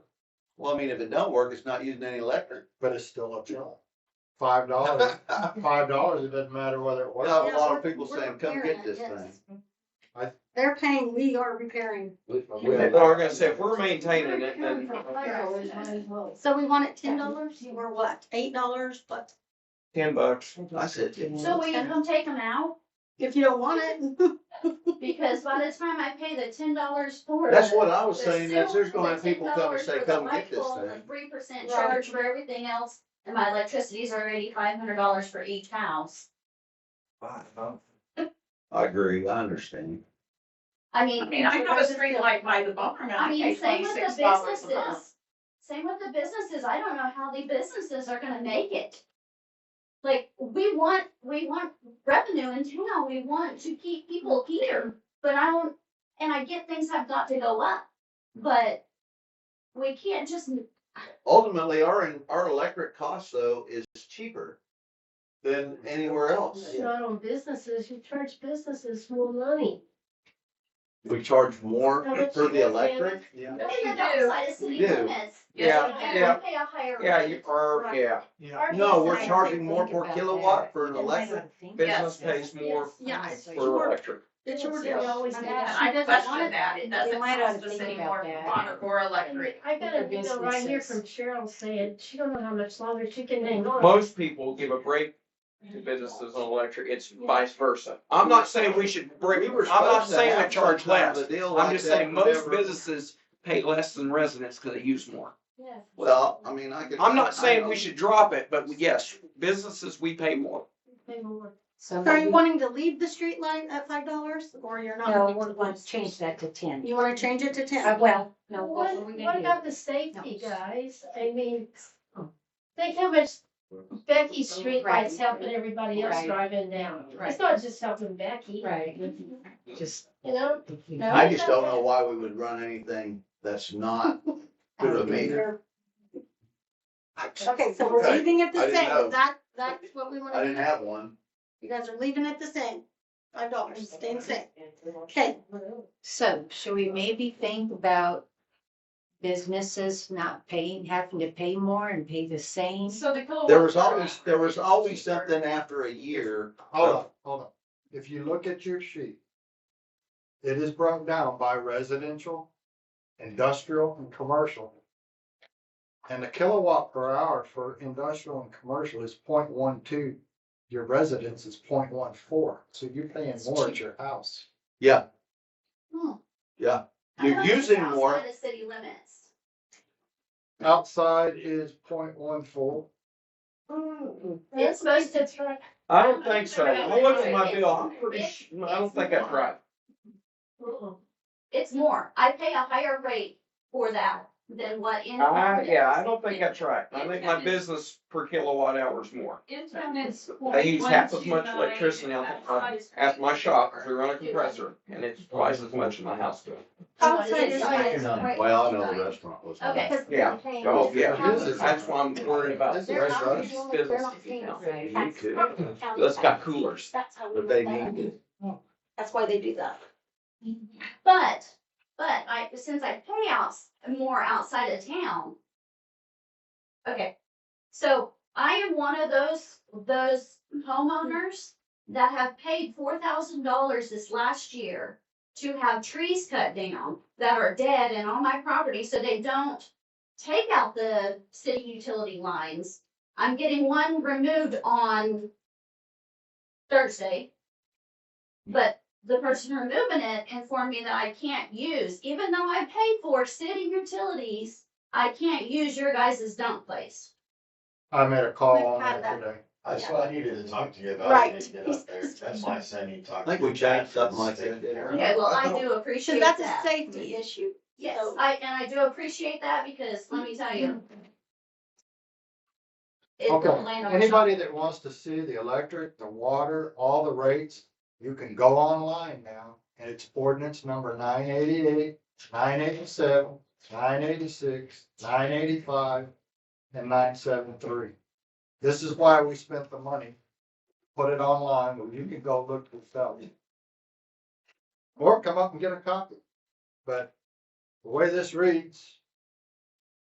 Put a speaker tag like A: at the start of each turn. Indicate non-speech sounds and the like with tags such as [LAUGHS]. A: Well, I mean, if it don't work, it's not using any electric. Oh,
B: but it's still
C: [LAUGHS]
B: a job. Five
A: [LAUGHS]
B: dollars, five dollars, it doesn't matter whether it
A: No.
B: works.
A: a
D: Yeah,
A: lot of
D: we're-
A: people
D: we're
A: saying, "Come get
D: repairing it,
A: this
D: yes.
B: I-
D: They're paying, we are repairing.
C: Well, we're gonna say, if we're maintaining it, then,
E: Coming from Plato is might as well.
D: So we want it ten dollars or what? Eight dollars, but
C: ten bucks,
A: I said, yeah.
E: So will you come take them out?
D: if you don't want it, [LAUGHS]
E: Because by the time I pay the ten dollars for it.
A: That's what I was saying, that there's gonna have people come and say, come get this thing.
E: Three percent
D: Right.
E: charge for everything else, and my electricity's already five hundred dollars for each house.
A: I agree, I understand.
E: I
F: I
E: mean.
F: mean, I know a street light by the barn,
E: I
F: I pay
E: mean, same with the
F: twenty-six dollars a month.
E: businesses. Same with the businesses. I don't know how the businesses are gonna make it. Like, we want, we want revenue in town. We want to keep people here, but I don't, and I get things have got to go up, but we can't just,
A: Ultimately, our, our electric cost though is cheaper than anywhere else.
G: Not on businesses, you charge businesses more money.
A: We charge more
G: How much
A: for
G: you
A: the electric,
B: Yeah,
E: no,
G: you
E: the
G: do.
E: downside is city
A: You do.
E: limits.
F: Yeah,
E: So I
C: yeah.
E: gotta Pay a higher.
C: yeah,
E: rate.
C: you, or, yeah,
B: yeah.
A: no, we're
D: Yes, I
A: charging more per kilowatt for an electric.
C: business pays more
D: yeah, it's
C: for
D: your,
C: electric.
D: it's your, we always do
F: And
D: that.
F: I
G: She doesn't want
F: question
G: it.
F: that, it doesn't
G: They might ought to
F: cost us
G: think
F: any
G: about
F: more
G: that.
F: water or electric.
G: I got a
E: For
G: video right here from
E: businesses.
G: Cheryl saying, she don't know how much longer she can hang on.
C: Most people give a break to businesses on electric, it's vice versa. I'm not saying we should break,
A: We were
C: I'm not
A: supposed to
C: saying we
A: have
C: charge
A: some kind of
C: less.
A: a deal like
C: I'm just
A: that
C: saying most
A: whenever-
C: businesses pay less than residents because they use more.
G: Yes.
A: Well, I mean, I could.
C: I'm not saying
A: I-
C: we should drop it, but yes, businesses, we pay more.
G: Pay more.
D: So are you wanting to leave the street light at five dollars or you're not?
H: No, we're going to change that to ten.
D: You wanna change it to
H: Uh,
D: ten?
H: well, no,
G: What,
H: what are we
G: what
H: gonna
G: about the safety,
H: No.
G: guys? I mean,
H: Oh.
G: think how much Becky's street lights helping everybody else
H: Right.
G: driving now.
H: Right.
G: It's not just helping Becky,
H: do? Right, just.
G: you know? No.
A: I just don't know why we would run anything that's not through a meter.
D: Okay, so we're leaving it the
A: I didn't know.
D: same. That, that's what we
A: I
D: wanna
A: didn't
D: do.
A: have one.
D: You guys are leaving it the same. Five dollars, staying same. Okay,
H: So should we maybe think about businesses not paying, having to pay more and pay the same?
F: So the kilowatt.
A: There was always, there was always something after a year.
B: Hold on, hold on. If you look at your sheet, it is broken down by residential, industrial, and commercial. And the kilowatt per hour for industrial and commercial is 0.12. Your residence is 0.14. so you're paying more at your house.
E: I
A: You're
E: don't think
A: using
E: outside
A: more.
E: of city limits.
B: Outside is 0.14.
G: It's supposed to try.
C: I don't think so. I looked at my bill, I'm pretty su- I don't think that's right.
G: Uh-uh.
E: It's more. I pay a higher rate for that than what in.
A: Ah,
C: I, yeah, I don't think that's right. I think my business per kilowatt hour is more.
F: Internet's.
C: I use half as much electricity at, uh, at my shop, we run a compressor, and it's twice as much in my house bill.
D: outside is
E: Outside
D: like,
E: is- Right.
A: Well, I know the restaurant was.
E: Okay.
D: because
C: Yeah.
D: they're paying.
C: Oh, yeah,
B: This is-
C: that's why I'm worried about
B: This
D: They're
B: is
D: not
B: us.
D: doing it, they're
C: business
D: not paying us.
H: Right.
A: You could.
C: Let's got coolers.
D: That's how we
A: But they
D: look at it.
A: need it.
D: That's why they do that.
E: But, but I, since I pay out more outside of town. Okay, so I am one of those, those homeowners that have paid four thousand dollars this last year to have trees cut down that are dead and on my property, so they don't take out the city utility lines. I'm getting one removed on Thursday. But the person removing it informed me that I can't use, even though I paid for city utilities, I can't use your guys' dump place.
B: I made a call
D: We've
B: on
D: had
B: that
D: that.
B: today.
I: That's what I needed to talk to you about.
D: Right.
I: I didn't get up there. That's why I said I need to talk.
A: I think we
I: to you.
A: changed something like that, didn't we?
E: Okay, well, I do
D: So
E: appreciate
D: that's a
E: that.
D: safety issue.
E: Yes,
D: So- Mm-hmm.
E: I, and I do appreciate that because let me tell you. It
B: Okay,
E: don't land on my shop.
B: anybody that wants to see the electric, the water, all the rates, you can go online now. And it's ordinance number nine eighty-eight, nine eighty-seven, nine eighty-six, nine eighty-five, and nine seven-three. This is why we spent the money. Put it online, but you can go look yourself. Or come up and get a copy. But the way this reads,